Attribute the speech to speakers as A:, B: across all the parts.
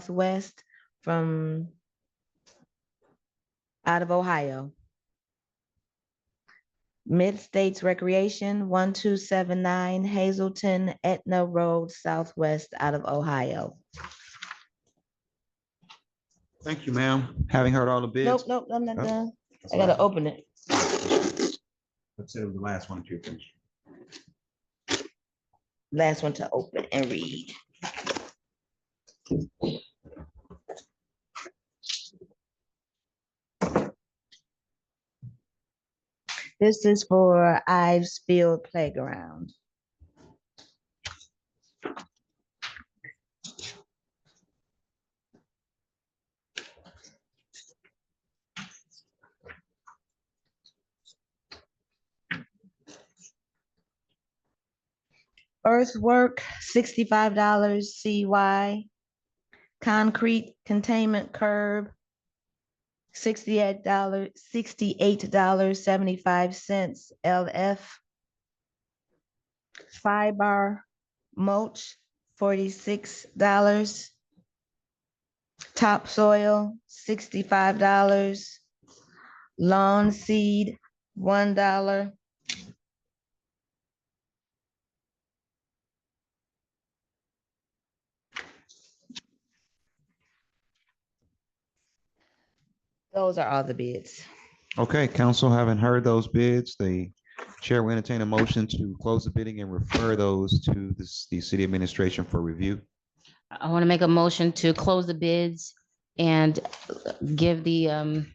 A: Southwest from out of Ohio. Mid States Recreation, one two seven nine Hazelton Etna Road Southwest out of Ohio.
B: Thank you, ma'am. Having heard all the
A: Nope,
B: bids.
A: nope, I'm not
B: Huh?
A: done. I gotta open it.
B: Consider the last one too.
A: Last one to open and read. This is for Ives Field Playground. Earthwork, sixty-five dollars CY. Concrete containment curb, sixty-eight dollar, sixty-eight dollars seventy-five cents LF. Fiber mulch, forty-six dollars. Topsoil, sixty-five dollars. Lawn seed, one dollar. Those are all the bids.
B: Okay, council, having heard those bids, the chair will entertain a motion to close the bidding and refer those to the, s- the city administration for review.
C: I want to make a motion to close the bids and give the um,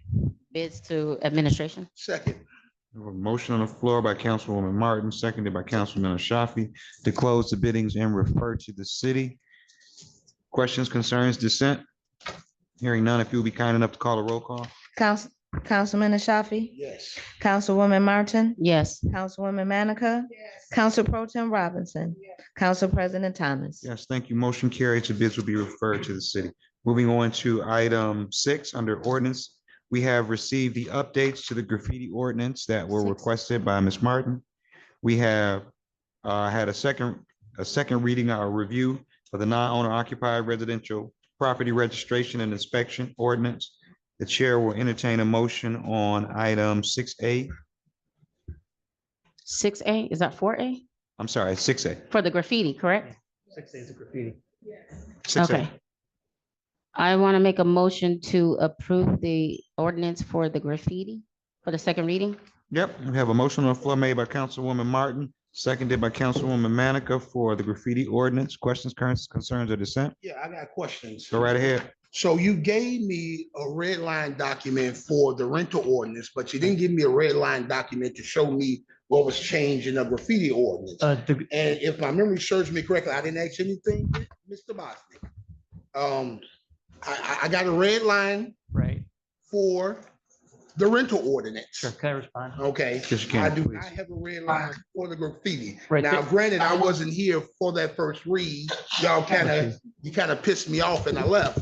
C: bids to administration.
B: Second. Motion on the floor by Councilwoman Martin, seconded by Councilman Ashafi to close the biddings and refer to the city. Questions, concerns, dissent? Hearing none, if you'll be kind enough to call a roll call.
A: Council, Councilman Ashafi?
B: Yes.
A: Councilwoman Martin?
C: Yes,
A: Councilwoman Manica? Council Pro Tim Robinson? Council President Thomas?
B: Yes, thank you. Motion carries. The bids will be referred to the city. Moving on to item six, under ordinance. We have received the updates to the graffiti ordinance that were
C: Six.
B: requested by Ms. Martin. We have uh, had a second, a second reading, our review for the non-owner occupied residential property registration and inspection ordinance. The chair will entertain a motion on item six A,
C: six A, is that four A?
B: I'm sorry, six A.
C: For the graffiti, correct?
D: Six days of graffiti.
C: Okay. I want to make a motion to approve the ordinance for the graffiti for the second reading.
B: Yep, we have a motion on the floor made by Councilwoman Martin, seconded by Councilwoman Manica for the graffiti ordinance. Questions, currents, concerns, or dissent?
E: Yeah, I got questions.
B: Go right ahead.
E: So you gave me a red line document for the rental ordinance, but you didn't give me a red line document to show me what was changed in the graffiti ordinance.
D: Uh, the,
E: And if my memory serves me correctly, I didn't ask anything, Mr. Bosnick. Um, I, I, I got a red line
D: right,
E: for the rental ordinance.
D: sure, can I respond?
E: Okay,
B: Yes, you
E: I
B: can,
E: do, I
B: please.
E: have a red line for the graffiti.
D: Right,
E: Now,
D: th-
E: granted, I wasn't here for that first read. Y'all kind of, you kind of pissed me off and I left.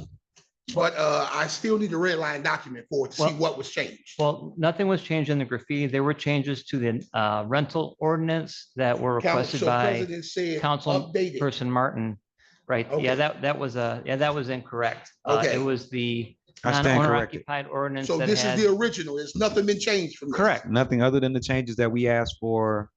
E: But uh, I still need the red line document for it to see
D: Well-
E: what was changed.
D: Well, nothing was changed in the graffiti. There were changes to the uh, rental ordinance that were
E: Council
D: requested
E: so
D: by
E: President said
D: Council
E: Updated.
D: Person Martin. Right, yeah,
E: Okay.
D: that, that was a, yeah, that was incorrect. Uh, It
E: Okay.
D: was the
B: I stand
D: non-owner
B: corrected.
D: occupied ordinance
E: So
D: that
E: this is the
D: had.
E: original. There's nothing been changed from. this.
D: Correct.
B: Nothing other than the changes that we asked for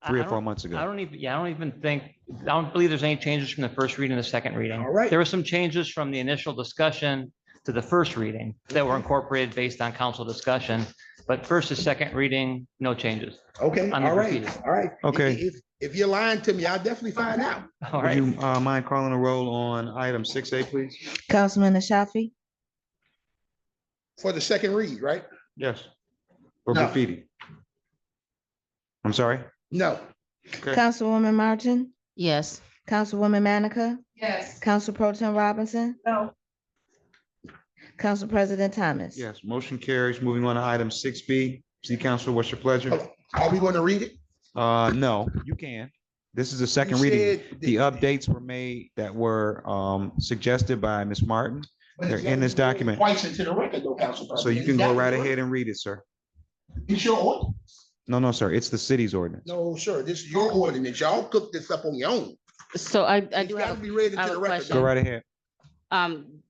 D: I-
B: three
D: I
B: or four
D: don't-
B: months
D: I
B: ago.
D: don't even, yeah, I don't even think, I don't believe there's any changes from the first reading to the second reading.
E: All right.
D: There were some changes from the initial discussion to the first reading that were incorporated based on council discussion. But first to second reading, no changes.
E: Okay,
D: On the
E: all right,
D: graffiti.
E: all right.
B: Okay.
E: If, if you're lying to me, I'll definitely find out.
D: All
B: Would
D: right.
B: you uh, mind calling a roll on item six A, please?
A: Councilman Ashafi?
E: For the second read, right?
B: Yes. For
E: No.
B: graffiti. I'm sorry?
E: No.
B: Okay.
A: Councilwoman Martin?
C: Yes,
A: Councilwoman Manica?
F: Yes.
A: Council Pro Tim Robinson?
F: No.
A: Council President Thomas?
B: Yes, motion carries. Moving on to item six B. City Council, what's your pleasure?
E: Are we going to read it?
B: Uh, no, you can. This is the
E: Oh. You
B: second reading.
E: said
B: The
E: that-
B: updates were made that were um suggested by Ms. Martin,
E: But
B: They're
E: it's
B: in this
E: gotta be
B: document.
E: Twice into the record though, Council
B: so
E: President.
B: you can
E: It's
B: go
E: gotta
B: right
E: be-
B: ahead and read it, sir.
E: It's your ordinance.
B: No, no, sir, it's the city's ordinance.
E: No, sir, this is your ordinance. Y'all cooked this up on your own.
C: so I, I
E: It's
C: do
E: gotta
C: have,
E: be
C: I
E: read into
C: have
E: the
C: a
E: record.
C: question.
B: Go right ahead.
C: Um,